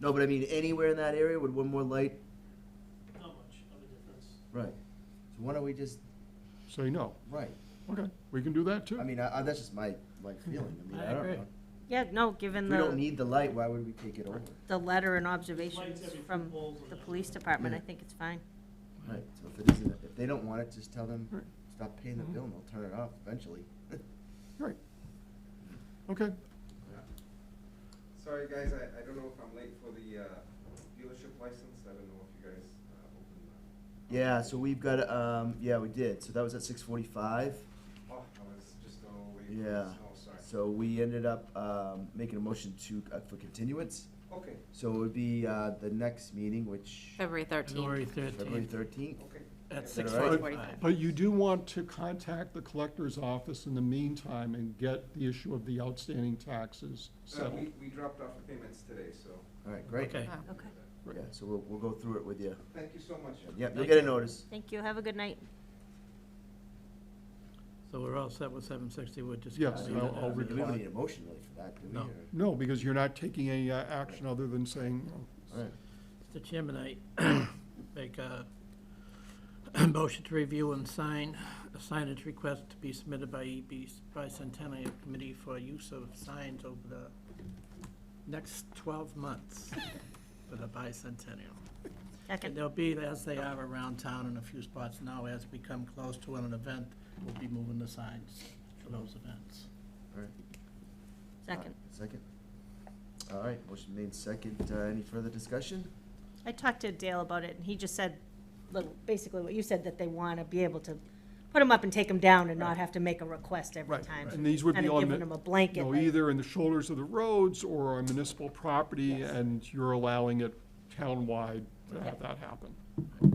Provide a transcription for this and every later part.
No, but I mean, anywhere in that area, would one more light, Not much of a difference. right. So why don't we just, Say no. right, Okay, we can do that too. I mean, I, I, that's just my, my feeling, I mean, I I don't agree. know. Yeah, no, If given we don't the, need the light, why would we take it over? the letter and Lights observations every few from poles and the that. police department, I Yeah. think it's fine. Right, so if it isn't, if they don't want it, just tell them, Right. stop paying the Mm-hmm. bill and they'll turn it off eventually. Right. Okay, Sorry, guys, I, I don't know if I'm late for the, uh, dealership license, I don't know if you guys, uh, opened that. Yeah, so we've got, um, yeah, we did, so that was at six forty-five, Oh, I was just a little late for Yeah. the snow, sorry. so we ended up, um, making a motion to, uh, for continuance. Okay, So it would be, uh, the next meeting, which, February 13th. February February thirteenth, thirteenth? okay. at Is that six all right? forty-five. but you do want to contact the collector's office in the meantime and get the issue of the outstanding taxes Uh, settled. we, we dropped off the payments today, so. All right, great. Okay, Wow. Okay. Right. Yeah, so we'll, we'll go through it with you. Thank you so much. Yep, you'll Thank get a you. notice. Thank you, have a good night. so we're all set with seven sixty, we're just. Yes, gonna leave I'll- it I'll as We is. reply. don't need a motion really for that, do we? No. or- No, because you're not taking any uh, action other than saying, you know, All right, Mr. Chairman, I make a motion to review and sign a signage request to be submitted by EB Bicentennial Committee for use of signs over the next twelve months for the bicentennial. And Second, they'll be as they are around town in a few spots now. As we come close to an event, we'll be moving the signs for those events. all right. second. Uh, Second. All right, motion made second. Uh, any further discussion? I talked to Dale about it, and he just said, little- basically what you said, that they want to be able to put them up and take them down and not have to make a request every right, time. and these would be Kind of on, giving them the- a blanket, you know, like, either in the shoulders of the roads or on municipal property, Yes. and you're allowing it townwide to have Yep. that happen. All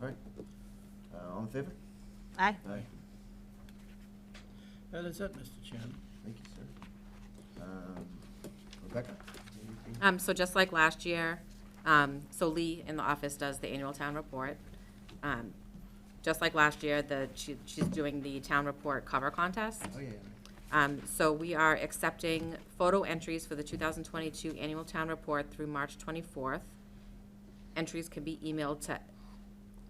right. Uh, all in favor? aye, Aye. That is it, Mr. Chairman. Thank you, sir. Um, Rebecca? anything? Um, so just like last year, um, so Lee in the office does the annual town report. Um, Just like last year, the, she, she's doing the town report cover contest. Oh, yeah, yeah. Um, so we are accepting photo entries for the two thousand twenty-two annual town report through March twenty-fourth. Entries can be emailed to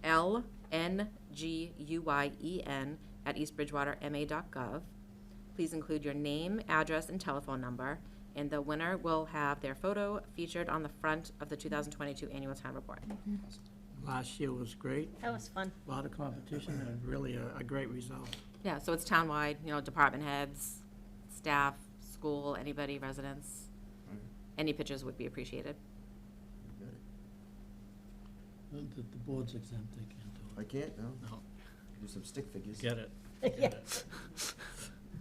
L N G U Y E N at eastbridgewaterma.gov. Please include your name, address, and telephone number, and the winner will have their photo featured on the front of the two thousand twenty-two annual town report. Last year was great, that was fun. a lot of competition and really a, a great result. Yeah, so it's townwide, you know, department heads, staff, school, anybody, residents. Any pictures would be appreciated. You got it. The, the board's exempt, they can't do I can't, no? it. No, Do some stick figures. get it. Yeah. Get it.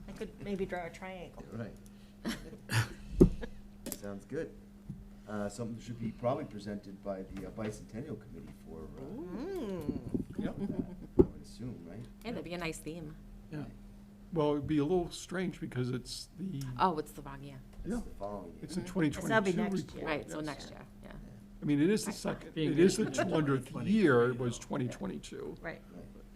I could maybe draw a triangle. All Right. Sounds good. Uh, something should be probably presented by the uh, bicentennial committee for, uh, Mm. I would assume, right? Hey, that'd be a nice theme. Yeah, Well, it'd be a little strange because it's the, Oh, it's the wrong year. It's Yeah. the following year. it's the Mhm. twenty that'll be twenty-two next report. year. Right, so yes. next year, yeah. I mean, it is the Right. second, Being it is the reasonable, two hundredth 2022, year, you it was know. twenty twenty-two. Right, Right.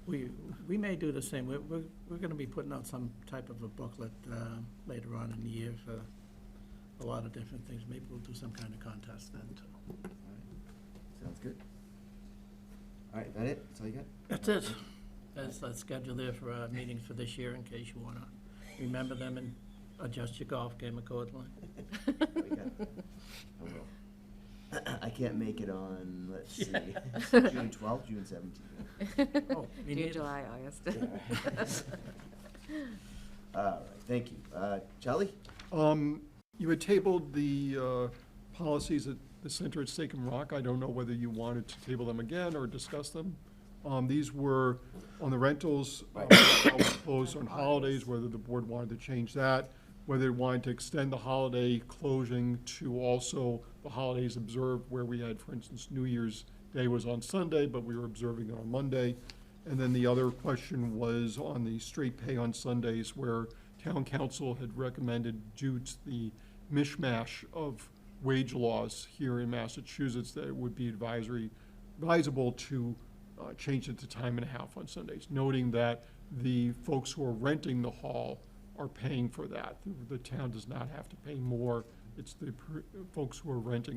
we, we may do the same, we're, we're, we're gonna be putting out some type of a booklet, um, later on in the year for a lot of different things, maybe we'll do some kind of contest then too. Sounds good. All right, that it? That's all you got? That's it, that's, that's scheduled there for our meetings for this year, in case you wanna remember them and adjust your golf game accordingly. We got it. I will. I can't make it on, let's see, June twelfth, June seventeenth. Oh, me June, neither. July, August. All right, thank you. Uh, Charlie? Um, you had tabled the, uh, policies at the center at Stake and Rock. I don't know whether you wanted to table them again or discuss them. Um, these were on the rentals, uh, how we closed on holidays, whether the board wanted to change that, whether it wanted to extend the holiday closing to also the holidays observed where we had, for instance, New Year's Day was on Sunday, but we were observing it on Monday. And then the other question was on the straight pay on Sundays, where town council had recommended due to the mishmash of wage laws here in Massachusetts, that it would be advisory, advisable to uh, change it to time and a half on Sundays, noting that the folks who are renting the hall are paying for that. The- The town does not have to pay more. It's the per- folks who are renting